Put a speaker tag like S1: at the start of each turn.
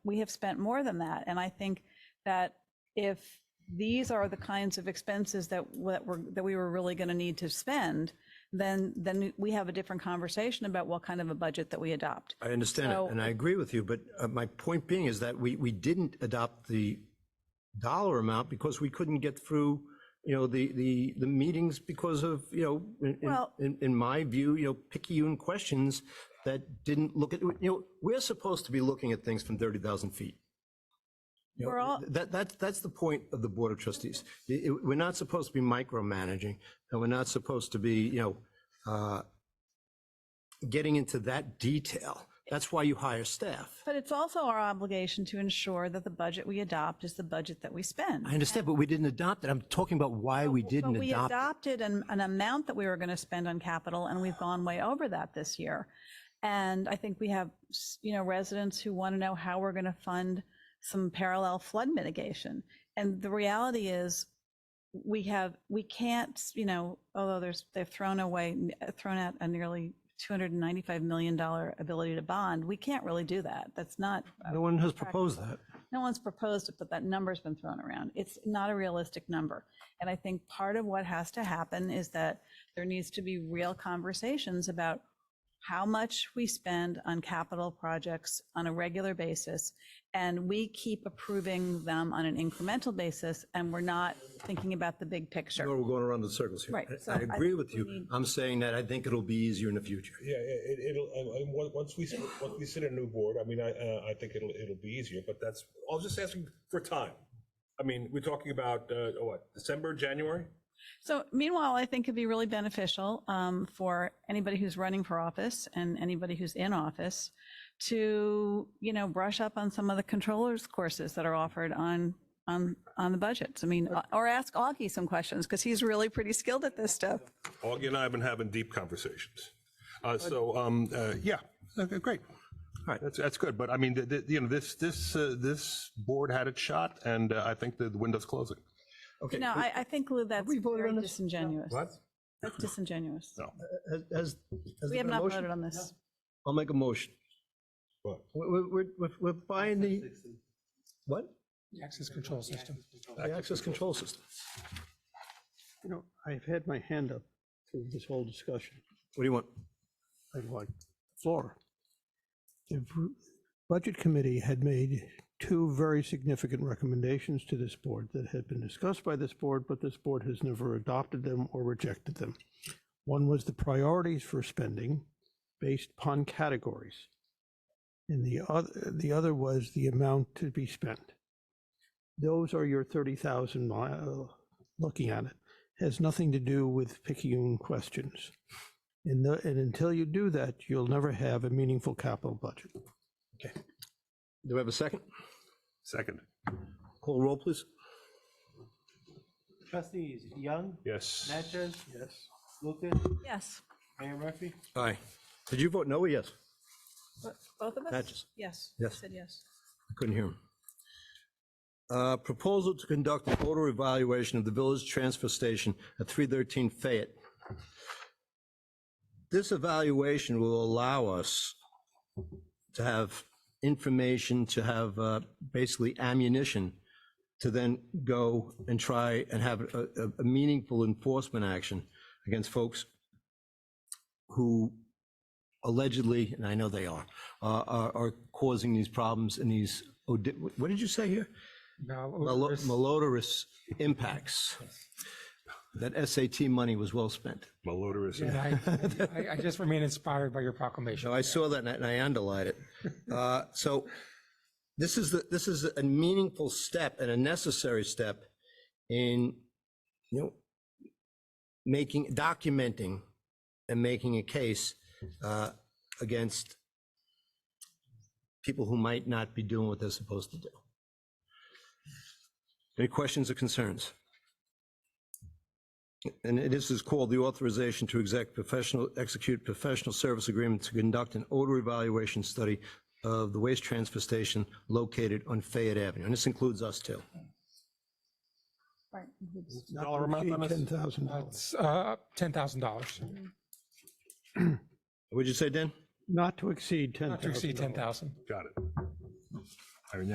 S1: we have spent more than that. And I think that if these are the kinds of expenses that, that were, that we were really going to need to spend, then, then we have a different conversation about what kind of a budget that we adopt.
S2: I understand
S1: So-
S2: it, and I agree with you, but uh, my point being is that we, we didn't adopt the dollar amount because we couldn't get through, you know, the, the, the meetings because of, you know, in- in-
S1: Well-
S2: in, in my view, you know, picayune questions that didn't look at, you know, we're supposed to be looking at things from 30,000 feet. You know,
S1: We're all-
S2: That, that's, that's the point of the Board of Trustees. It- it- We're not supposed to be micromanaging, and we're not supposed to be, you know, uh, getting into that detail. That's why you hire staff.
S1: But it's also our obligation to ensure that the budget we adopt is the budget that we spend.
S2: I understand, but we didn't adopt it. I'm talking about why we didn't
S1: But we
S2: adopt. it.
S1: adopted an, an amount that we were going to spend on capital, and we've gone way over that this year. And I think we have, s- you know, residents who want to know how we're going to fund some parallel flood mitigation. And the reality is, we have, we can't, you know, although there's, they've thrown away, thrown out a nearly $295 million ability to bond, we can't really do that. That's not,
S2: No one has proposed that.
S1: no one's proposed it, but that number's been thrown around. It's not a realistic number. And I think part of what has to happen is that there needs to be real conversations about how much we spend on capital projects on a regular basis. And we keep approving them on an incremental basis, and we're not thinking about the big picture.
S2: Or we're going around in circles here.
S1: Right,
S2: I-
S1: so
S2: I
S1: I
S2: agree
S1: think
S2: with
S1: we
S2: you.
S1: need-
S2: I'm saying that I think it'll be easier in the future.
S3: Yeah, yeah, it, it'll, I- I- on- once we, once we sit a new board, I mean, I, uh, I think it'll, it'll be easier, but that's, I was just asking for time. I mean, we're talking about, uh, what, December, January?
S1: So meanwhile, I think it'd be really beneficial um, for anybody who's running for office and anybody who's in office to, you know, brush up on some of the controllers courses that are offered on, on, on the budgets. I mean, or ask Augie some questions because he's really pretty skilled at this stuff.
S3: Augie and I have been having deep conversations. Uh, so, um, uh, yeah, okay, great. All right, that's, that's good, but I mean, the, the, you know, this, this, uh, this board had its shot, and uh, I think the the window's closing.
S2: Okay.
S1: No, I, I think Lou, that's
S2: we voted
S1: very
S2: on this?
S1: disingenuous.
S3: What?
S1: That's disingenuous.
S3: No.
S2: Has- Has, has
S1: We
S2: there
S1: have
S2: been a
S1: not
S2: motion?
S1: voted on this.
S2: I'll make a motion.
S3: What?
S2: We- we- We're, we're, we're buying the, what?
S4: The access control system.
S2: The access control system.
S5: You know, I've had my hand up through this whole discussion.
S2: What do you want?
S5: I'd like the floor. The v- Budget Committee had made two very significant recommendations to this board that had been discussed by this board, but this board has never adopted them or rejected them. One was the priorities for spending based upon categories. And the other, the other was the amount to be spent. Those are your 30,000 mile, looking at it, has nothing to do with picayune questions. And, the- and until you do that, you'll never have a meaningful capital budget.
S2: Do we have a second?
S3: Second.
S2: Call roll, please.
S6: Trustees Young,
S3: Yes.
S6: Natchez,
S5: Yes.
S6: Lucas,
S1: Yes.
S6: Mayor Murphy.
S2: Aye. Did you vote no or yes?
S1: Both of us?
S2: Patches.
S1: Yes.
S2: Yes.
S1: Said yes.
S2: I couldn't hear him. Uh, Proposal to conduct an odor evaluation of the village transfer station at 313 Fayette. This evaluation will allow us to have information, to have uh, basically ammunition, to then go and try and have a a- a meaningful enforcement action against folks who allegedly, and I know they are, uh, are, are causing these problems and these, odi- what did you say here? Malo- Malodorous impacts. That SAT money was well spent.
S3: Malodorous.
S4: And I, I- I just remain inspired by your proclamation.
S2: No, I saw that and I- and I underlined it. Uh, So this is, the this is a meaningful step and a necessary step in, you know, making, documenting and making a case uh, against people who might not be doing what they're supposed to do. Any questions or concerns? And this is called the authorization to exec professional, execute professional service agreement to conduct an odor evaluation study of the waste transfer station located on Fayette Avenue. And this includes us too.
S1: Right.
S5: Dollar amount on Ten thousand dollars.
S4: It's uh, $10,000,
S2: What'd you say, Dan?
S5: Not to exceed ten thousand.
S4: not to exceed 10,000.
S3: Got it.